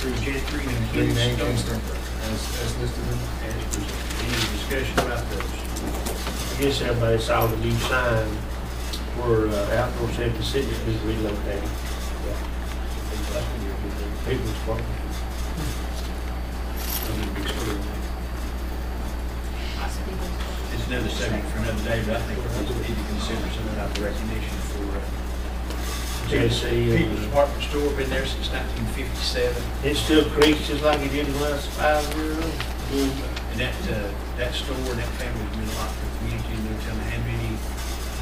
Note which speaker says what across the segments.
Speaker 1: through J three and
Speaker 2: Green
Speaker 1: J
Speaker 2: and
Speaker 1: Stone.
Speaker 2: Kingston, as, as listed in.
Speaker 1: As presented. Any discussion about those? I guess everybody saw the new sign where uh, outdoor safety city is relocated. People's park. I mean, big square.
Speaker 3: It's another subject for another day, but I think we need to consider some type of recognition for uh,
Speaker 1: JC,
Speaker 3: People's
Speaker 1: and-
Speaker 3: Department Store, been there since 1957.
Speaker 1: it still creaks just like it did the last five years.
Speaker 3: And that, uh, that store, and that family has meant a lot to the community, and they're telling how many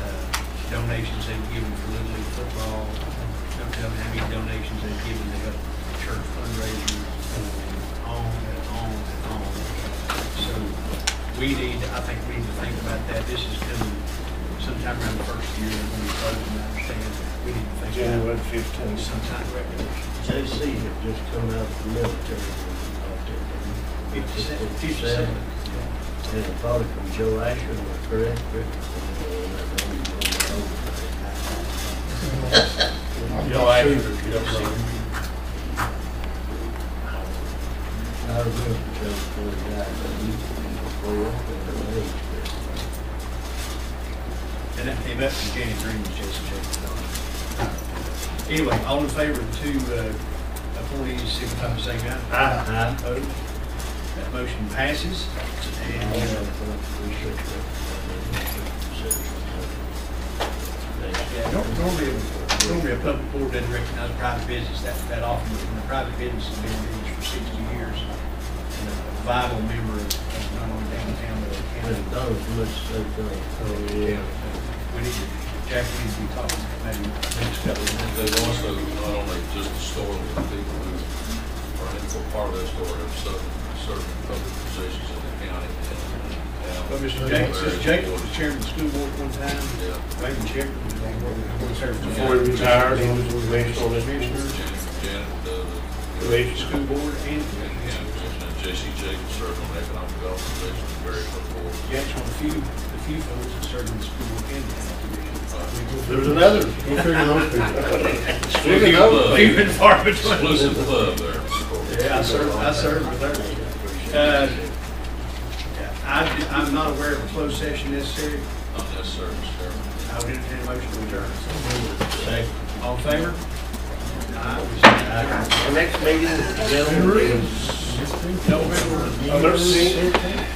Speaker 3: uh, donations they've given for Little League football. They're telling how many donations they've given to help the church fundraisers, and on and on and on. So we need, I think we need to think about that. This is coming sometime around the first year, and when we close, and I understand, we need to think about
Speaker 2: January fifteenth.
Speaker 3: sometime recognition.
Speaker 4: JC had just come out of the military when he out there.
Speaker 3: Fifty-seven,
Speaker 4: didn't he?
Speaker 3: fifty-seven.
Speaker 4: And a father from Joe Asher, am I correct? Rick?
Speaker 1: Y'all actually, you don't see.
Speaker 4: I remember Joe poor guy, but he was poor up in the age.
Speaker 3: And that came up from Jenny Green, Jason Jackson. Anyway, all in favor of two uh, appointees, signify by saying aye.
Speaker 1: I,
Speaker 3: Opposed? That motion passes.
Speaker 4: I don't
Speaker 3: And
Speaker 4: know
Speaker 3: uh,
Speaker 4: if we should recognize
Speaker 3: yeah, nor- normally, normally a public board doesn't recognize private business that, that often. but when a private business has been in business for sixty years and a vital member of of not only downtown, but of
Speaker 4: that.
Speaker 3: county.
Speaker 4: But those must say things.
Speaker 3: So, yeah, we need to, Jack, we need to be talking maybe next couple of minutes.
Speaker 5: There's also not only just the store, but people who are in for part of that store have certain, certain public positions in the county.
Speaker 3: Well,
Speaker 5: and- and-
Speaker 3: Mr. Jenkins, Mr. Jenkins was chairman of the school board one time,
Speaker 5: Yeah.
Speaker 3: maybe chairman, he was there.
Speaker 1: before he retired, he was with National
Speaker 5: Jan-
Speaker 1: Commissioner,
Speaker 5: Janet, uh, the-
Speaker 1: Commissioner.
Speaker 3: School board and
Speaker 5: And and J.C. Jacobs served on the economic development section, very important.
Speaker 3: Jack's one of the few, the few folks that served in the school board and the
Speaker 1: There was another, go figure those people. Speaking of
Speaker 5: Club.
Speaker 3: commission. Few and far between.
Speaker 5: Exclusive club there, Mr. Corbett.
Speaker 3: Yeah, I served, I served with her. Uh, I, I'm not aware of a closed session necessary.
Speaker 5: Not necessarily, Mr. Chairman.
Speaker 3: I would entertain a motion to adjourn. All in favor? Aye, we stand adjourned.
Speaker 1: The next meeting, gentlemen, is November sixteenth.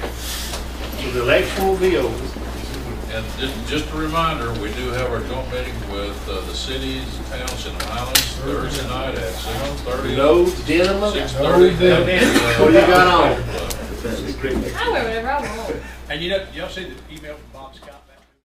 Speaker 1: So the election will be over.
Speaker 5: And just, just a reminder, we do have our joint meeting with uh, the cities, towns, and islands Thursday night at six thirty.
Speaker 1: No gentlemen,
Speaker 5: Six thirty.
Speaker 2: No
Speaker 1: what do you got on?
Speaker 6: I wear whatever I want.
Speaker 3: And you know, y'all see the email from Bob Scott back?